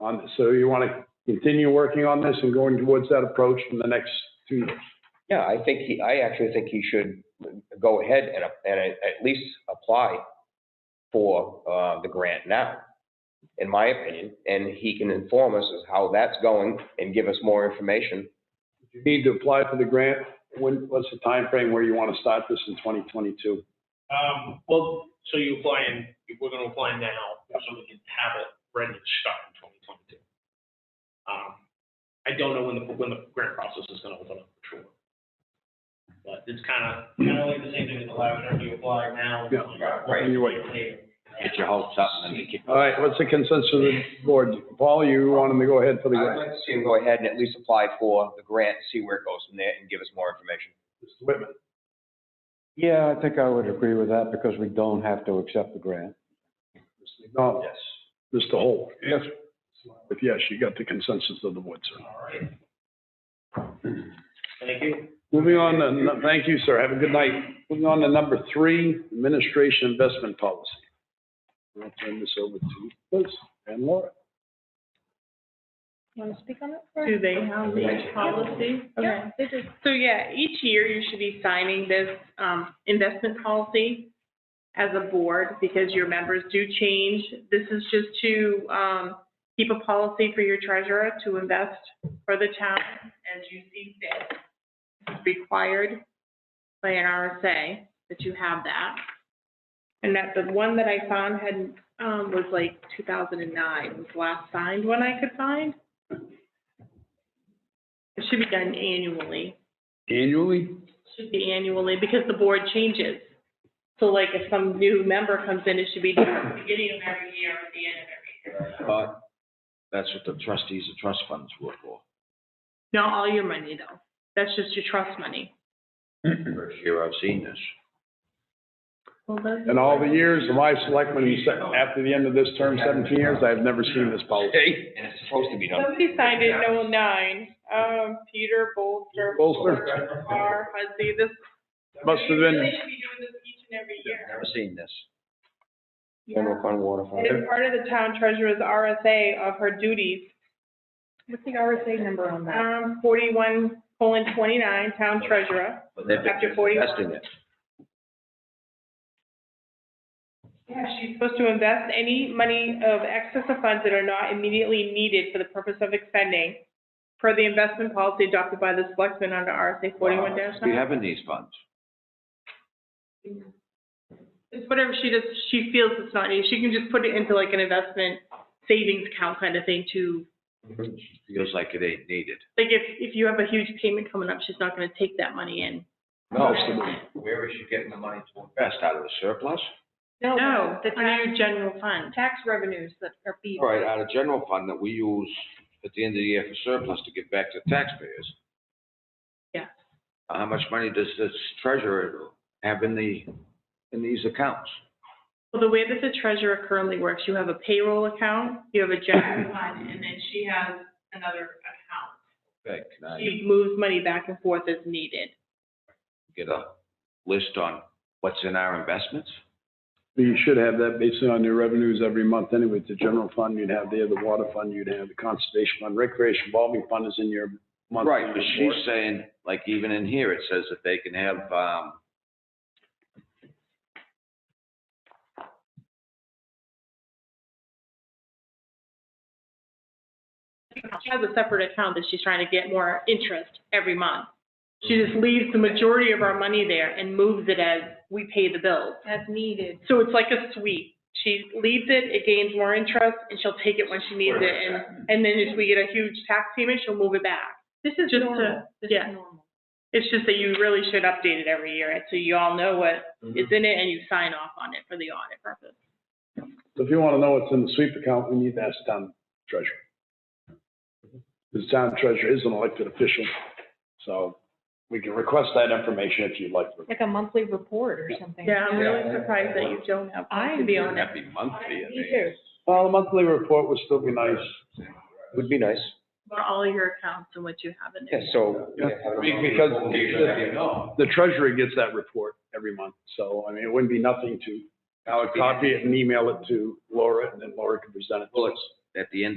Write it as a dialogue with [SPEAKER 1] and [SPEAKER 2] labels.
[SPEAKER 1] on this. So you want to continue working on this and going towards that approach in the next two years?
[SPEAKER 2] Yeah, I think he, I actually think he should go ahead and, and at least apply for, uh, the grant now, in my opinion, and he can inform us as how that's going and give us more information.
[SPEAKER 1] If you need to apply for the grant, when, what's the time frame where you want to start this in 2022?
[SPEAKER 3] Um, well, so you apply in, we're gonna apply now, so we can have it ready to start in twenty twenty-two. Um, I don't know when the, when the grant process is gonna open up for sure. But it's kinda, kinda like the same thing as the lavender, you apply now.
[SPEAKER 1] Yeah,
[SPEAKER 3] Right.
[SPEAKER 1] You wait.
[SPEAKER 3] Get your hopes up and then you
[SPEAKER 1] All right, what's the consensus of the board? Paul, you want him to go ahead for the
[SPEAKER 2] I'd like
[SPEAKER 1] grant?
[SPEAKER 2] to see him go ahead and at least apply for the grant, see where it goes from there and give us more information.
[SPEAKER 1] Mr. Whitman,
[SPEAKER 4] Yeah, I think I would agree with that because we don't have to accept the grant.
[SPEAKER 1] Mr. McDonald? Yes. Mr. Holt?
[SPEAKER 4] Yes.
[SPEAKER 1] If yes, you got the consensus of the board, sir.
[SPEAKER 3] All right. Thank you.
[SPEAKER 1] Moving on, to nu- thank you, sir. Have a good night. Moving on to number three, administration investment policy. I'll turn this over to Liz and Laura.
[SPEAKER 5] Want to speak on it first?
[SPEAKER 6] Do they have
[SPEAKER 1] Yeah.
[SPEAKER 6] this policy? Okay.
[SPEAKER 5] Yeah, they do.
[SPEAKER 6] So yeah, each year you should be signing this um, investment policy as a board because your members do change. This is just to um, keep a policy for your treasurer to invest for the town as you see fit. It's required by an RSA that you have that. And that the one that I found had, um, was like 2009, was the last signed one I could find. It should be done annually.
[SPEAKER 1] Annually?
[SPEAKER 6] Should be annually, because the board changes. So like if some new member comes in, it should be done at the beginning of every year or at the end of every year.
[SPEAKER 7] But that's what the trustees of trust funds were for.
[SPEAKER 6] Not all your money though. That's just your trust money.
[SPEAKER 7] First year I've seen this.
[SPEAKER 6] Well,
[SPEAKER 1] In all the years of my selectmen, you said, after the end of this term, 17 years, I have never seen this policy.
[SPEAKER 2] And it's supposed to be done.
[SPEAKER 6] Somebody signed it in '09. um, Peter Bolster.
[SPEAKER 1] Bolster.
[SPEAKER 6] Barr, Hudson, this.
[SPEAKER 1] Must have been-
[SPEAKER 6] They should be doing this each and every year.
[SPEAKER 7] Never seen this.
[SPEAKER 2] General fund water fund.
[SPEAKER 6] It is part of the town treasurer's RSA of her duties
[SPEAKER 5] What's the RSA number on that?
[SPEAKER 6] Um, forty-one colon twenty-nine, town treasurer.
[SPEAKER 7] But they've
[SPEAKER 6] Chapter
[SPEAKER 7] been
[SPEAKER 6] 41.
[SPEAKER 7] investing it.
[SPEAKER 6] Yeah, she's supposed to invest any money of excess of funds that are not immediately needed for the purpose of expending per the investment policy adopted by the selectmen under RSA forty-one
[SPEAKER 7] We
[SPEAKER 6] nine.
[SPEAKER 7] have in these funds.
[SPEAKER 6] It's whatever she does, she feels it's not needed. She can just put it into like an investment savings account kind of thing to,
[SPEAKER 7] Feels like it ain't needed.
[SPEAKER 6] like if, if you have a huge payment coming up, she's not gonna take that money in.
[SPEAKER 7] No, so where is she getting the money to invest? Out of the surplus?
[SPEAKER 6] No,
[SPEAKER 5] The
[SPEAKER 6] under
[SPEAKER 5] tax,
[SPEAKER 6] your general fund.
[SPEAKER 5] tax revenues that are being.
[SPEAKER 7] All right, out of general fund that we use at the end of the year for surplus to give back to taxpayers. Uh,
[SPEAKER 6] Yeah.
[SPEAKER 7] How much money does this treasurer have in the, in these accounts?
[SPEAKER 6] Well, the way that the treasurer currently works, you have a payroll account, you have a general fund, and then she has another account.
[SPEAKER 7] Okay, can I
[SPEAKER 6] She moves money back and forth as needed.
[SPEAKER 7] get a list on what's in our investments?
[SPEAKER 1] You should have that based on your revenues every month anyway. The general fund you'd have there, the water fund you'd have, the conservation fund, recreation revolving fund is in your monthly
[SPEAKER 7] Right, but
[SPEAKER 1] report.
[SPEAKER 7] she's saying, like even in here, it says that they can have, um,
[SPEAKER 6] She has a separate account that she's trying to get more interest every month. She
[SPEAKER 5] Mm-hmm.
[SPEAKER 6] just leaves the majority of our money there and moves it as we pay the bills.
[SPEAKER 5] As needed.
[SPEAKER 6] So it's like a sweep. She leaves it, it gains more interest, and she'll take it when she needs it. And, and then if we get a huge tax payment, she'll move it back.
[SPEAKER 5] This is
[SPEAKER 6] Just to-
[SPEAKER 5] normal. This is
[SPEAKER 6] yeah.
[SPEAKER 5] normal.
[SPEAKER 6] It's just that you really should update it every year, so you all know what is in it and you sign off on it for the audit purpose.
[SPEAKER 1] So If you want to know what's in the sweep account, we need to ask the town treasurer. The town treasurer is an elected official, so we can request that information if you'd like.
[SPEAKER 5] Like a monthly report or something.
[SPEAKER 6] Yeah, I'm really surprised that you don't have one, to be honest.
[SPEAKER 7] that'd be monthly, I
[SPEAKER 5] Me
[SPEAKER 7] mean.
[SPEAKER 5] too.
[SPEAKER 1] Well, a monthly report would still be nice.
[SPEAKER 2] Would be nice.
[SPEAKER 6] For all your accounts and what you have in
[SPEAKER 2] Yeah,
[SPEAKER 6] there.
[SPEAKER 2] so.
[SPEAKER 1] Yeah, because the treasurer gets that report every month, so, I mean, it wouldn't be nothing to, I would copy it and email it to Laura, and then Laura could present it.
[SPEAKER 7] Well, it's, at the end of